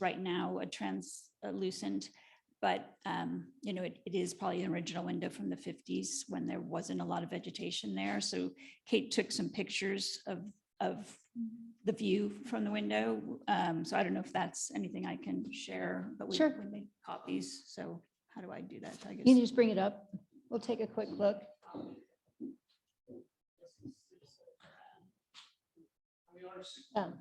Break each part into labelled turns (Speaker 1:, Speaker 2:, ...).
Speaker 1: right now a translucent, but, um, you know, it, it is probably an original window from the fifties when there wasn't a lot of vegetation there. So Kate took some pictures of, of the view from the window. Um, so I don't know if that's anything I can share, but we,
Speaker 2: Sure.
Speaker 1: we made copies. So how do I do that? I
Speaker 2: You can
Speaker 1: guess.
Speaker 2: just bring it up. We'll take a quick look. Um,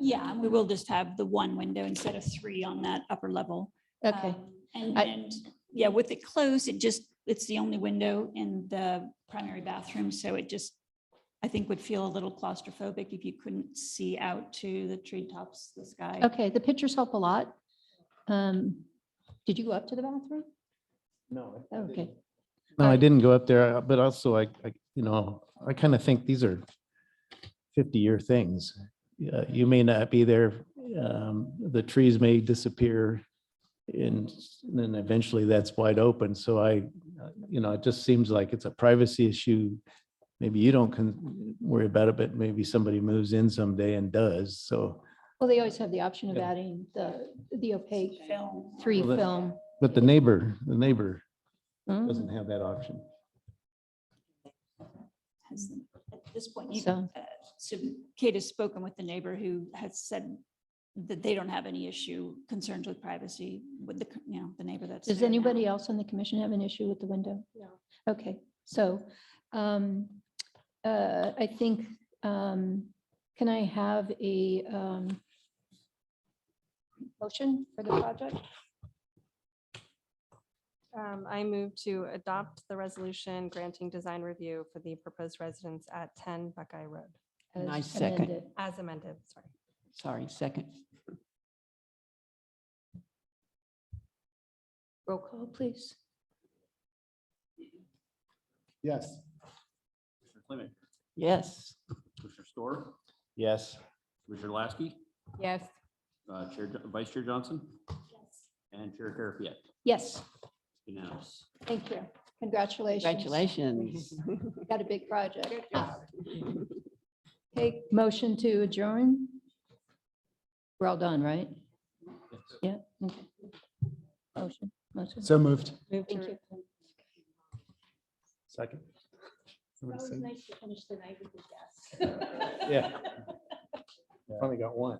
Speaker 1: Yeah, and we will just have the one window instead of three on that upper level.
Speaker 2: Okay,
Speaker 1: Um, And,
Speaker 2: I-
Speaker 1: and, yeah, with it closed, it just, it's the only window in the primary bathroom, so it just, I think would feel a little claustrophobic if you couldn't see out to the treetops, the sky.
Speaker 2: okay, the pictures help a lot. Um, Did you go up to the bathroom? Oh,
Speaker 3: No. I- I
Speaker 2: Okay,
Speaker 3: didn't. No, I
Speaker 2: Alright.
Speaker 3: didn't go up there, uh, but also I, I, you know, I kind of think these are fifty-year things. Uh, You may not be there, um, the trees may disappear and s- and then eventually that's wide open. So I, uh, you know, it just seems like it's a privacy issue. Maybe you don't con- worry about it, but maybe somebody moves in someday and does. So,
Speaker 2: well, they always have the option of
Speaker 3: Yeah.
Speaker 2: adding the, the opaque
Speaker 1: Film.
Speaker 2: three
Speaker 3: Well, that-
Speaker 2: film.
Speaker 3: but the neighbor, the neighbor
Speaker 2: Mm,
Speaker 3: doesn't have that option.
Speaker 1: has them. At this point, you,
Speaker 2: So-
Speaker 1: uh, so Kate has spoken with the neighbor who has said that they don't have any issue, concerns with privacy with the, c- you know, the neighbor that's.
Speaker 2: Does
Speaker 1: there now.
Speaker 2: anybody else on the commission have an issue with the window? No. Okay, so um, uh, I think, um, can I have a um, motion for the project?
Speaker 4: Um, I move to adopt the resolution granting design review for the proposed residence at ten Buckeye Road,
Speaker 2: as
Speaker 5: I second.
Speaker 2: amended?
Speaker 4: as amended, sorry.
Speaker 5: Sorry, second.
Speaker 2: Roll call, please.
Speaker 3: Yes.
Speaker 6: Commissioner Clement,
Speaker 5: Yes.
Speaker 6: Commissioner Store,
Speaker 3: Yes.
Speaker 6: Commissioner Lasky,
Speaker 4: Yes.
Speaker 6: uh, Chair, Vice Chair Johnson, and Chair Garapiet.
Speaker 2: Yes,
Speaker 6: Unanimous.
Speaker 2: thank you. Congratulations.
Speaker 5: Congratulations.
Speaker 2: Got a big project. Okay, motion to adjourn? We're all done, right? Yeah. okay. Motion, motion.
Speaker 3: So moved.
Speaker 4: Move
Speaker 2: Thank
Speaker 4: to
Speaker 2: you.
Speaker 3: Second. Somebody said-
Speaker 2: nice to finish the night with the
Speaker 3: Yeah. Finally got one.